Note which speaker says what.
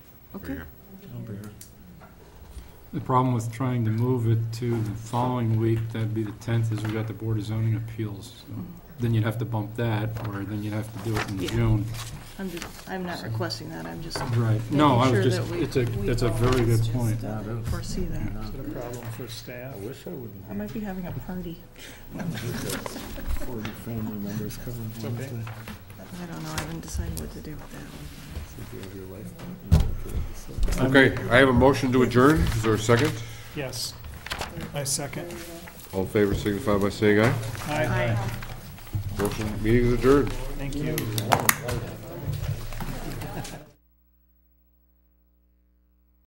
Speaker 1: Okay.
Speaker 2: The problem with trying to move it to the following week, that'd be the tenth, is we got the Board of Zoning Appeals. so Then you'd have to bump that, or then you'd have to do it in
Speaker 1: Yeah.
Speaker 2: June.
Speaker 1: I'm just, I'm not requesting that, I'm just
Speaker 2: Right. No, I was
Speaker 1: Making sure
Speaker 2: just,
Speaker 1: that we- uh,
Speaker 2: it's a, that's a very good point.
Speaker 1: foresee that.
Speaker 3: Is it a problem for staff?
Speaker 4: wish I wouldn't
Speaker 1: I might be having a party.
Speaker 4: forty family members coming
Speaker 3: It's okay.
Speaker 4: Wednesday.
Speaker 1: I don't know, I haven't decided what to do with that one.
Speaker 4: If you have your life partner, so.
Speaker 5: Okay, I have a motion to adjourn. Is there a second?
Speaker 3: Yes. I second.
Speaker 5: All in favor signify by saying aye.
Speaker 3: Aye.
Speaker 5: Motion, meeting is adjourned.
Speaker 3: Thank you.